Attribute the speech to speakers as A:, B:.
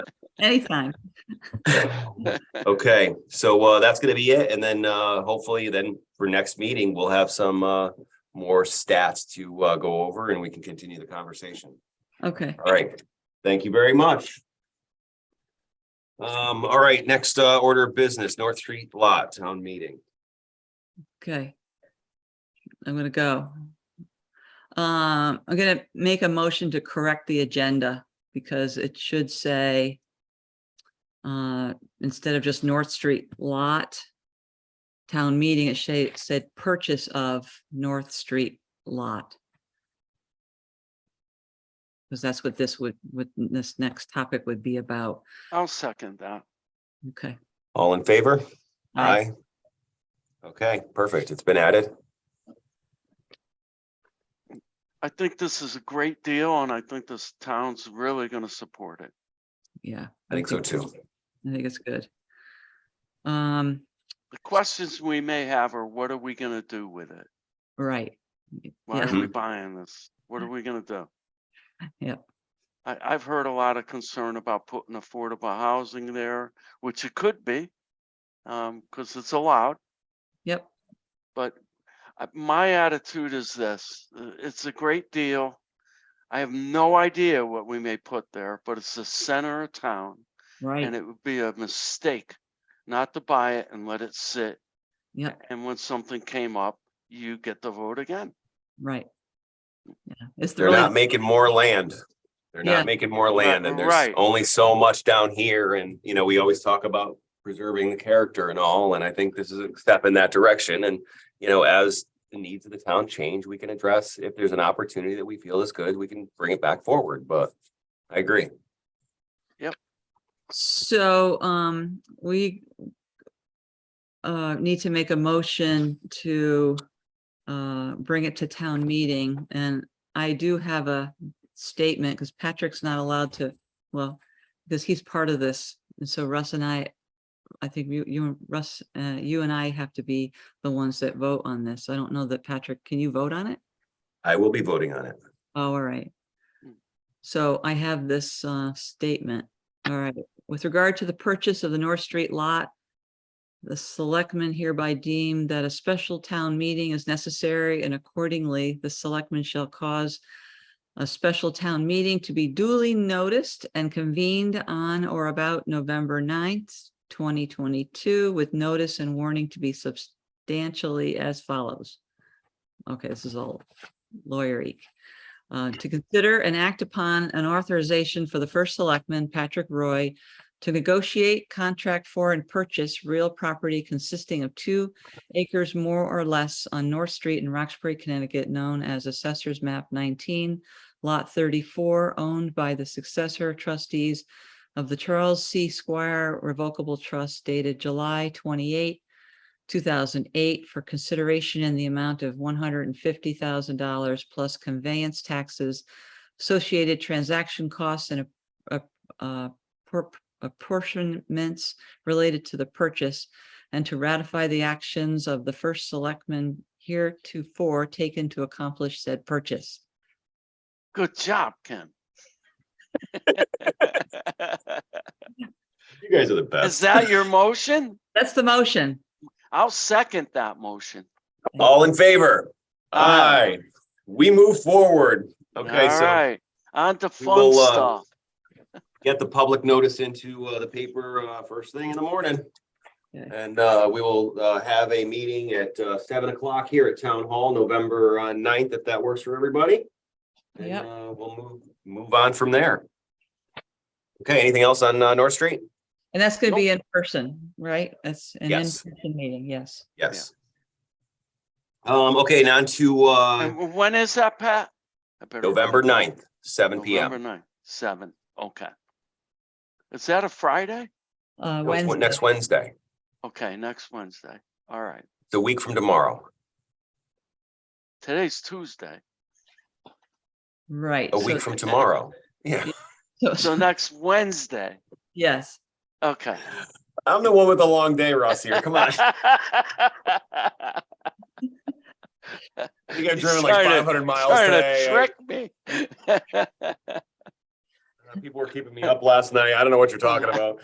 A: Anytime.
B: Okay, so uh, that's gonna be it, and then uh, hopefully then for next meeting, we'll have some uh, more stats to uh, go over and we can continue the conversation.
A: Okay.
B: All right, thank you very much. Um, all right, next uh, order of business, North Street Lot Town Meeting.
A: Okay. I'm gonna go. Um, I'm gonna make a motion to correct the agenda because it should say uh, instead of just North Street lot town meeting, it sha- said purchase of North Street lot. Because that's what this would, what this next topic would be about.
C: I'll second that.
A: Okay.
B: All in favor?
A: Aye.
B: Okay, perfect. It's been added.
C: I think this is a great deal and I think this town's really gonna support it.
A: Yeah.
B: I think so too.
A: I think it's good. Um,
C: The questions we may have are what are we gonna do with it?
A: right.
C: Why
A: Yeah.
C: are we buying this? What are we gonna do?
A: Yep.
C: I, I've heard a lot of concern about putting affordable housing there, which it could be. Um, cause it's allowed,
A: Yep.
C: but I- my attitude is this, uh, it's a great deal. I have no idea what we may put there, but it's the center of town. And
A: Right.
C: it would be a mistake not to buy it and let it sit.
A: Yep.
C: And when something came up, you get the vote again.
A: Right. Yeah, it's the
B: They're not
A: really,
B: making more land. They're
A: Yeah.
B: not making more land and there's
C: Right.
B: only so much down here and, you know, we always talk about preserving the character and all, and I think this is a step in that direction and, you know, as the needs of the town change, we can address if there's an opportunity that we feel is good, we can bring it back forward, but I agree.
A: so, um, we uh, need to make a motion to uh, bring it to town meeting. And I do have a statement because Patrick's not allowed to, well, because he's part of this. And so Russ and I, I think you, you, and Russ, uh, you and I have to be the ones that vote on this. I don't know that Patrick, can you vote on it?
B: I will be voting on it.
A: Oh, All right.
C: Mm.
A: So I have this uh, statement. All right. With regard to the purchase of the North Street lot, the selectmen hereby deem that a special town meeting is necessary and accordingly, the selectmen shall cause a special town meeting to be duly noticed and convened on or about November 9th, twenty twenty-two, with notice and warning to be substantially as follows. Okay, this is all lawyery uh, to consider and act upon an authorization for the first selectman, Patrick Roy, to negotiate, contract for, and purchase real property consisting of two acres more or less on North Street in Roxbury, Connecticut, known as Assessor's Map nineteen, Lot thirty-four, owned by the successor trustees of the Charles C. Squire Revocable Trust dated July 28, two thousand eight for consideration in the amount of one hundred and fifty thousand dollars plus conveyance taxes, associated transaction costs and a- a- uh, por- apportionments related to the purchase and to ratify the actions of the first selectman heretofore taken to accomplish said purchase.
C: Good job, Ken.
B: You guys are the
C: Is
B: best.
C: that your motion?
A: That's the motion.
C: I'll second that motion.
B: All in favor?
C: Aye.
B: Aye. We move forward. Okay,
C: All
B: so
C: right, on to
B: we
C: fun
B: will, uh,
C: stuff.
B: get the public notice into uh, the paper uh, first thing in the morning.
A: Okay.
B: And uh, we will uh, have a meeting at uh, seven o'clock here at Town Hall, November uh, 9th, if that works for everybody. And
A: Yep.
B: uh, we'll move, move on from there. Okay, anything else on uh, North Street?
A: And that's going to be in person, right? That's an
B: Yes.
A: in-person meeting, yes.
B: Yes. Um, okay, now to uh,
C: And w- when is that, Pat? I better-
B: November 9th, seven PM.
C: November ninth, seven, okay. Is that a Friday?
A: Uh,
B: No, it's
A: Wednesday.
B: Next Wednesday,
C: Okay, next Wednesday. All right,
B: the week from tomorrow,
C: today's Tuesday.
A: Right.
B: a
A: so-
B: week from tomorrow. Yeah,
A: so-
C: So next Wednesday,
A: Yes.
C: okay.
B: I'm the one with the long day, Ross, here. Come on.
C: He's trying to-
B: hundred
C: Trying to trick me.
B: People were keeping me up last night. I don't know what you're talking about.